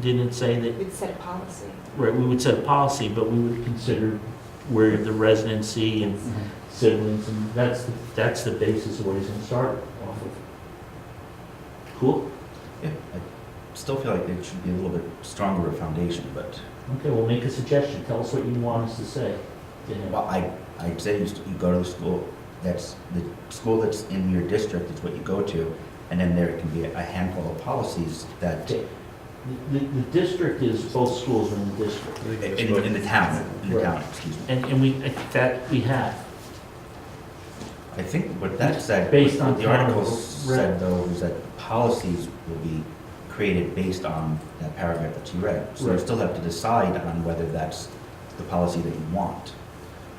Didn't it say that, We'd set a policy. right, we would set a policy, but we would consider where the residency and siblings, and that's, the- that's the basis of what he's gonna start off of. Cool? Yeah, I still feel like it should be a little bit stronger of foundation, but, Okay, well, make a suggestion, tell us what you want us to say to him. well, I, I'd say you, st- you go to the school, that's, the school that's in your district is what you go to, and then there can be a handful of policies that, Okay. The, the district is, both schools are in the district, in, in the town, in the town, excuse me. and, and we, I think that we have. I think what that said, Based on what the article town said though, was that policies will be created based on that paragraph that you read. So you Right. still have to decide on whether that's the policy that you want.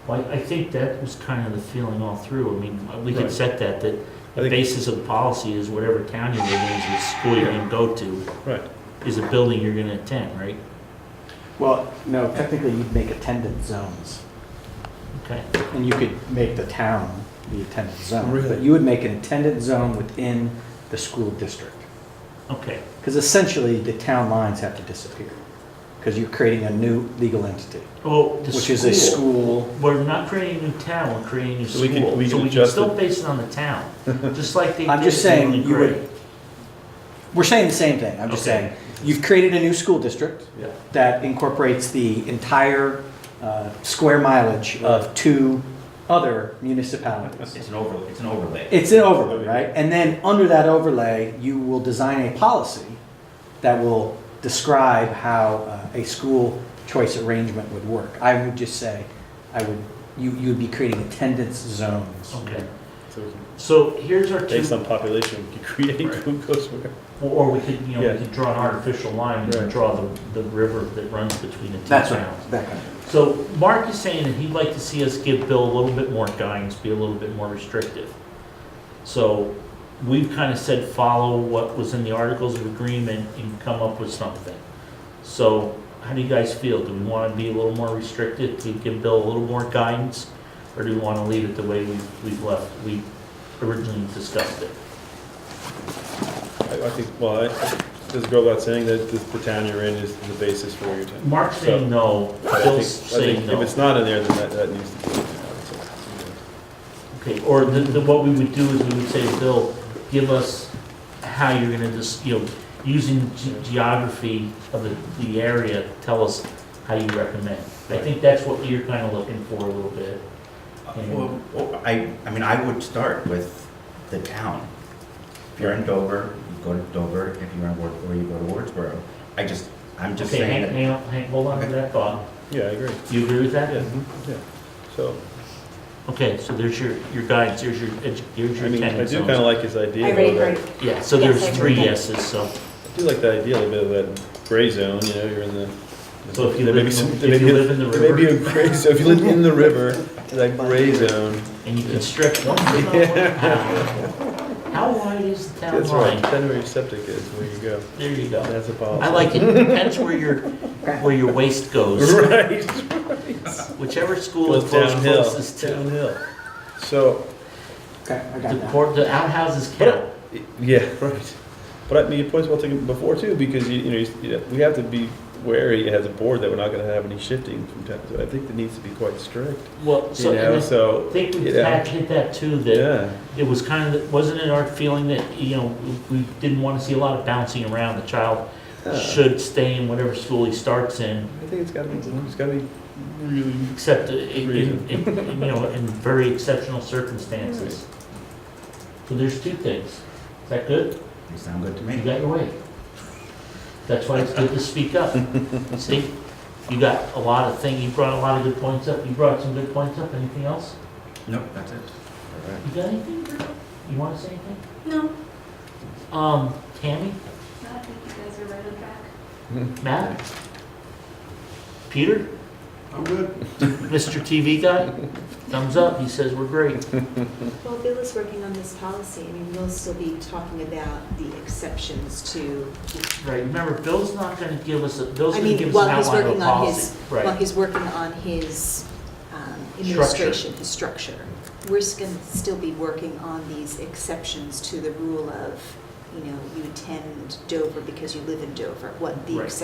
Well, I I think that was kind of the feeling all through. I mean, we Right. could set that, that I the think- basis of the policy is whatever town you're in, is the school you're gonna go to, Right. is a building you're gonna attend, right? Well, no, technically you'd make attendance zones, Okay, and you could make the town the attendance zone. Really? But you would make an attendance zone within the school district. okay, Because essentially, the town lines have to disappear, because you're creating a new legal entity, oh, the which is a school. school. We're not creating a new town, we're creating a new So we could- school, we so could we can adjust still it. base it on the town, just like they did. I'm just in saying, Ely you Gray. would, we're saying the same thing, I'm just Okay. saying, you've created a new school district Yeah. that incorporates the entire uh, square mileage of two other municipalities. It's an overlay, it's an overlay. It's an overlay, right? And then under that overlay, you will design a policy that will describe how uh, a school choice arrangement would work. I would just say, I would, you, you would be creating attendance zones. Okay, So we can- so here's our Based two, on population, we can create who goes where. or we could, you know, Yeah. we could draw an artificial line, we could Right. draw the, the river that runs between the two towns. That's right, that kind of thing. So Mark is saying that he'd like to see us give Bill a little bit more guidance, be a little bit more restrictive. So we've kind of said follow what was in the Articles of Agreement and come up with something. So how do you guys feel? Do we want to be a little more restrictive to give Bill a little more guidance? Or do we want to leave it the way we- we've left, we originally discussed it? I, I think, well, I, I- does it go without saying that the, the town you're in is the basis for your town? Mark's saying no, I think- I Bill's think saying no. If it's not in there, then that, that needs to be. in there, I would say. Okay, or the, the, what we would do is we would say, Bill, give us how you're gonna just, you know, using ge- geography of the, the area, tell us how you recommend. I think that's what you're kinda looking for a little bit. Well, well, I, I mean, I would start with the town. If you're in Dover, you go to Dover, if you're in Wardsboro, you go to Wardsboro. I just, I'm just Okay, hang, saying that, hang on, hang, hold on to that thought. Yeah, I agree. Do you agree with that? Yeah, yeah. So, Okay, so there's your, your guidance, there's your, edu- here's I your mean, I attendance do kind of zones. like his idea. I though, already that- heard, Yeah, so Yes, there's I three agree. yeses, so, I do like the idea, a little bit of that gray zone, you know, you're in the. So if you there live may be in- some- if there may you be a- live in the there may be a gray, so if you live in the river, that gray zone. and you can strip one thing out, one out. How wide is the town That's right, line? depending where your septic is, where you go. There you go. That's a I policy. like it, depends where your, where your waist goes, Right. whichever school Goes it goes downhill. closest to. Downhill. So, Okay, I The got that. court, the outhouses count. yeah, right. But I mean, your point's well taken before too, because you, you know, you- you know, we have to be wary as a board that we're not gonna have any shifting from time to, I think it needs to be quite strict, Well, you so, know, and I so, think we you know. had hit that too, that yeah. it was kind of, wasn't it our feeling that, you know, we we didn't want to see a lot of bouncing around, the child I should stay in whatever school he starts in, think it's gotta be, it's gotta be really, except, i- in- Reason. in- you know, in very exceptional circumstances. So there's two things, is that good? they sound good to You me. got your way. That's why it's good to speak up. See, you got a lot of thing, you brought a lot of good points up, you brought some good points up, anything else? Nope, that's it. You got anything, Drew? You wanna say anything? No, no, Um, Tammy, I think you guys are right on track. Matt? Peter? I'm good. Mr. TV guy, thumbs up, he says we're great. well, Bill is working on this policy, I mean, we'll still be talking about the exceptions to, Right, remember, Bill's not gonna give us, a Bill's I gonna mean, give us an while he's outline of working a on policy. his, while Right, he's working on his um, Structure. administration, his structure. We're just gonna still be working on these exceptions to the rule of, you know, you attend Dover because you live in Dover, what the Right. exceptions